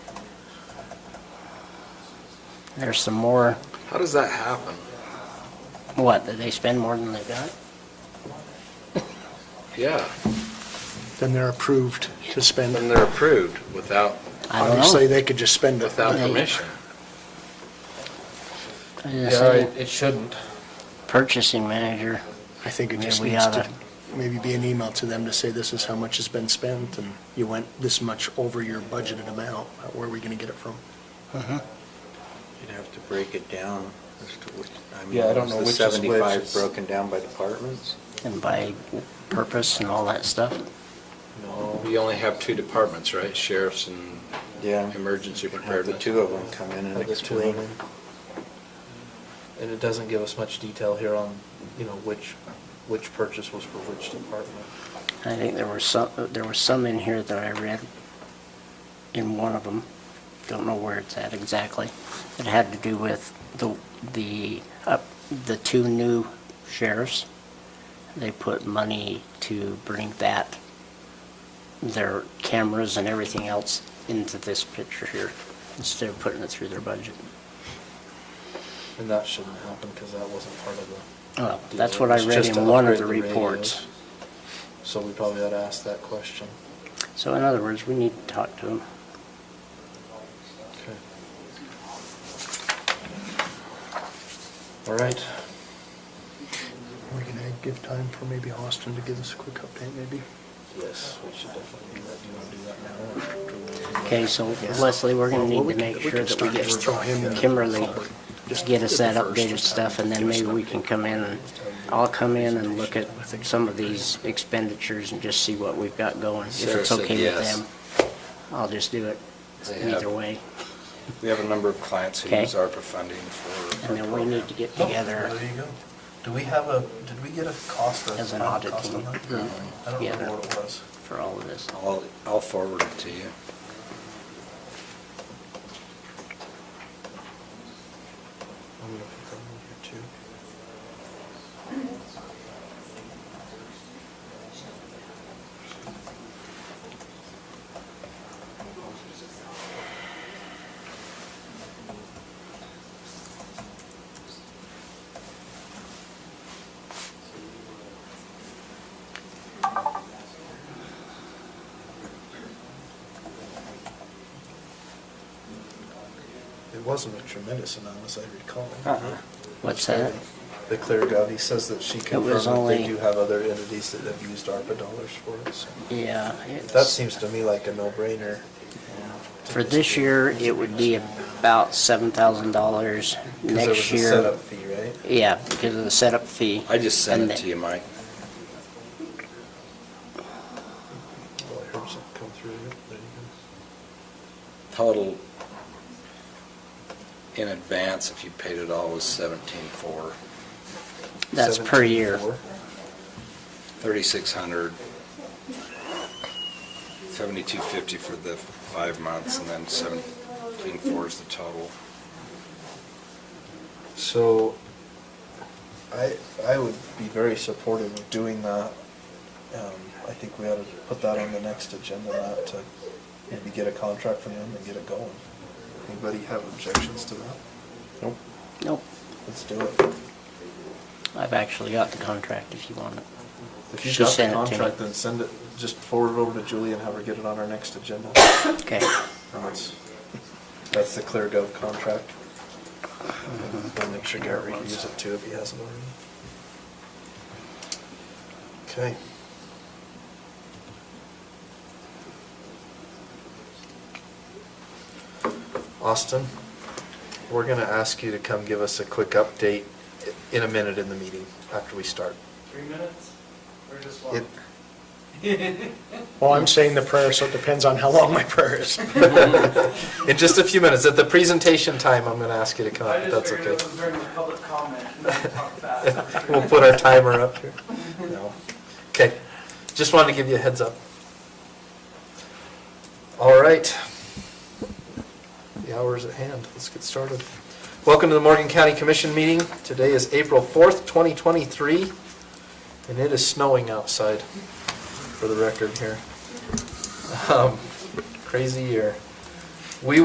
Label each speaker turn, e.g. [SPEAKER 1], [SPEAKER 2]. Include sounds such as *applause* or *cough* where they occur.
[SPEAKER 1] There's some more,
[SPEAKER 2] How does that happen?
[SPEAKER 1] what, that they spend more than they've got?
[SPEAKER 2] Yeah,
[SPEAKER 3] Then they're approved to spend.
[SPEAKER 2] then they're approved without,
[SPEAKER 1] I don't know.
[SPEAKER 3] Obviously, they could just spend it.
[SPEAKER 2] without
[SPEAKER 1] They-
[SPEAKER 2] permission.
[SPEAKER 1] I just
[SPEAKER 4] Yeah,
[SPEAKER 1] say
[SPEAKER 4] it it shouldn't.
[SPEAKER 1] purchasing manager,
[SPEAKER 3] I think it
[SPEAKER 1] Maybe
[SPEAKER 3] just
[SPEAKER 1] we
[SPEAKER 3] needs to
[SPEAKER 1] oughta-
[SPEAKER 3] maybe be an email to them to say this is how much has been spent and you went this much over your budgeted amount. Uh, Where are we going to get it from?
[SPEAKER 5] You'd have to break it down as to which, I mean,
[SPEAKER 4] Yeah, I don't know
[SPEAKER 5] is
[SPEAKER 4] which
[SPEAKER 5] the
[SPEAKER 4] is which.
[SPEAKER 5] 75 broken down by departments?
[SPEAKER 1] and by purpose and all that stuff.
[SPEAKER 5] No.
[SPEAKER 2] We only have two departments, right? Sheriffs and
[SPEAKER 5] Yeah.
[SPEAKER 2] emergency
[SPEAKER 5] You can have the
[SPEAKER 2] preparedness.
[SPEAKER 5] two of them come in and
[SPEAKER 4] Have the two of
[SPEAKER 5] explain.
[SPEAKER 4] them. And it doesn't give us much detail here on, you know, which, which purchase was for which department.
[SPEAKER 1] I think there were some, there was some in here that I read in one of them, don't know where it's at exactly. It had to do with the, the, up, the two new sheriffs. They put money to bring that, their cameras and everything else into this picture here, instead of putting it through their budget.
[SPEAKER 4] And that shouldn't happen because that wasn't part of the.
[SPEAKER 1] Well, that's
[SPEAKER 4] deal.
[SPEAKER 1] what I
[SPEAKER 4] It's
[SPEAKER 1] read
[SPEAKER 4] just
[SPEAKER 1] in
[SPEAKER 4] to
[SPEAKER 1] one of the
[SPEAKER 4] upgrade
[SPEAKER 1] reports.
[SPEAKER 4] radios. So we probably ought to ask that question.
[SPEAKER 1] So in other words, we need to talk to them.
[SPEAKER 4] Okay. All right.
[SPEAKER 3] We're going to give time for maybe Austin to give us a quick update, maybe?
[SPEAKER 4] Yes, we should definitely do that. Do you want to do that now? or do we wanna do
[SPEAKER 1] Okay,
[SPEAKER 4] that?
[SPEAKER 1] so Leslie, we're gonna need to make sure that we get Kimberly, to get us that updated stuff, and then maybe we can come in, and I'll come in and look at some of these expenditures and just see what we've got going, if
[SPEAKER 2] Sarah
[SPEAKER 1] it's
[SPEAKER 2] said
[SPEAKER 1] okay with
[SPEAKER 2] yes.
[SPEAKER 1] them. I'll just do it
[SPEAKER 2] They have-
[SPEAKER 1] either way,
[SPEAKER 6] We have a number of clients who
[SPEAKER 1] Okay.
[SPEAKER 6] use ARPA funding for.
[SPEAKER 1] and
[SPEAKER 6] our
[SPEAKER 1] then we need to
[SPEAKER 4] Oh,
[SPEAKER 1] get together.
[SPEAKER 4] There you go. Do we have a, did we get a cost or a
[SPEAKER 1] As an
[SPEAKER 4] final
[SPEAKER 1] audit
[SPEAKER 4] cost on
[SPEAKER 1] team.
[SPEAKER 4] that?
[SPEAKER 1] Mm.
[SPEAKER 4] I don't
[SPEAKER 1] Yeah.
[SPEAKER 4] remember what it was.
[SPEAKER 1] for all of this.
[SPEAKER 6] program. I'll, I'll forward it to you.
[SPEAKER 4] I'm gonna put that in here too. It wasn't a tremendous amount, as I recall.
[SPEAKER 1] What's that?
[SPEAKER 4] The Clear Gov, he says that she
[SPEAKER 1] It was
[SPEAKER 4] confirmed that they
[SPEAKER 1] only-
[SPEAKER 4] do have other entities that have used ARPA dollars for it, so.
[SPEAKER 1] Yeah. it's-
[SPEAKER 4] That seems to me like a no-brainer.
[SPEAKER 1] For this year, it would be about seven thousand dollars.
[SPEAKER 4] Because
[SPEAKER 1] Next
[SPEAKER 4] there was a
[SPEAKER 1] year,
[SPEAKER 4] setup fee, right?
[SPEAKER 1] yeah, because of the setup fee.
[SPEAKER 6] I just
[SPEAKER 1] And
[SPEAKER 6] sent it
[SPEAKER 1] the-
[SPEAKER 6] to you, Mike.
[SPEAKER 4] Well, I heard something come through, Yep, there you
[SPEAKER 6] Total in advance, if you paid it all, was seventeen-four,
[SPEAKER 4] go.
[SPEAKER 1] That's per year.
[SPEAKER 4] 17,400.
[SPEAKER 6] thirty-six hundred, seventy-two fifty for the five months, and then seventeen-four is the total.
[SPEAKER 4] So, I, I would be very supportive of doing that. Um, I think we ought to put that on the next agenda, not to maybe get a contract from them and get it going. Anybody have objections to that? Nope.
[SPEAKER 1] Nope,
[SPEAKER 4] Let's do it.
[SPEAKER 1] I've actually got the contract if you want it.
[SPEAKER 4] If you've
[SPEAKER 1] She
[SPEAKER 4] got the
[SPEAKER 1] sent it to me.
[SPEAKER 4] contract, then send it, just forward it over to Julie and have her get it on our next agenda.
[SPEAKER 1] Okay,
[SPEAKER 4] That's, that's the Clear Gov contract. We'll make sure Gary can use it too if he hasn't already. Okay. Austin, we're gonna ask you to come give us a quick update i- in a minute in the meeting after we start.
[SPEAKER 7] Three minutes? Or just
[SPEAKER 4] It-
[SPEAKER 7] *laughs* one?
[SPEAKER 3] Well, I'm saying the prayer, so it depends on how long my prayer is.
[SPEAKER 4] *laughs* In just a few minutes, at the presentation time, I'm gonna ask you to come up,
[SPEAKER 7] I
[SPEAKER 4] if
[SPEAKER 7] just
[SPEAKER 4] that's
[SPEAKER 7] figured it
[SPEAKER 4] okay.
[SPEAKER 7] was during the public
[SPEAKER 4] *laughs*
[SPEAKER 7] comment. and then talk fast.
[SPEAKER 4] We'll put our timer up here. No. Okay, just wanted to give you a heads up. All right. The hour is at hand, let's get started. Welcome to the Morgan County Commission meeting. Today is April 4th, 2023, and it is snowing outside, for the record here. Um, Crazy year.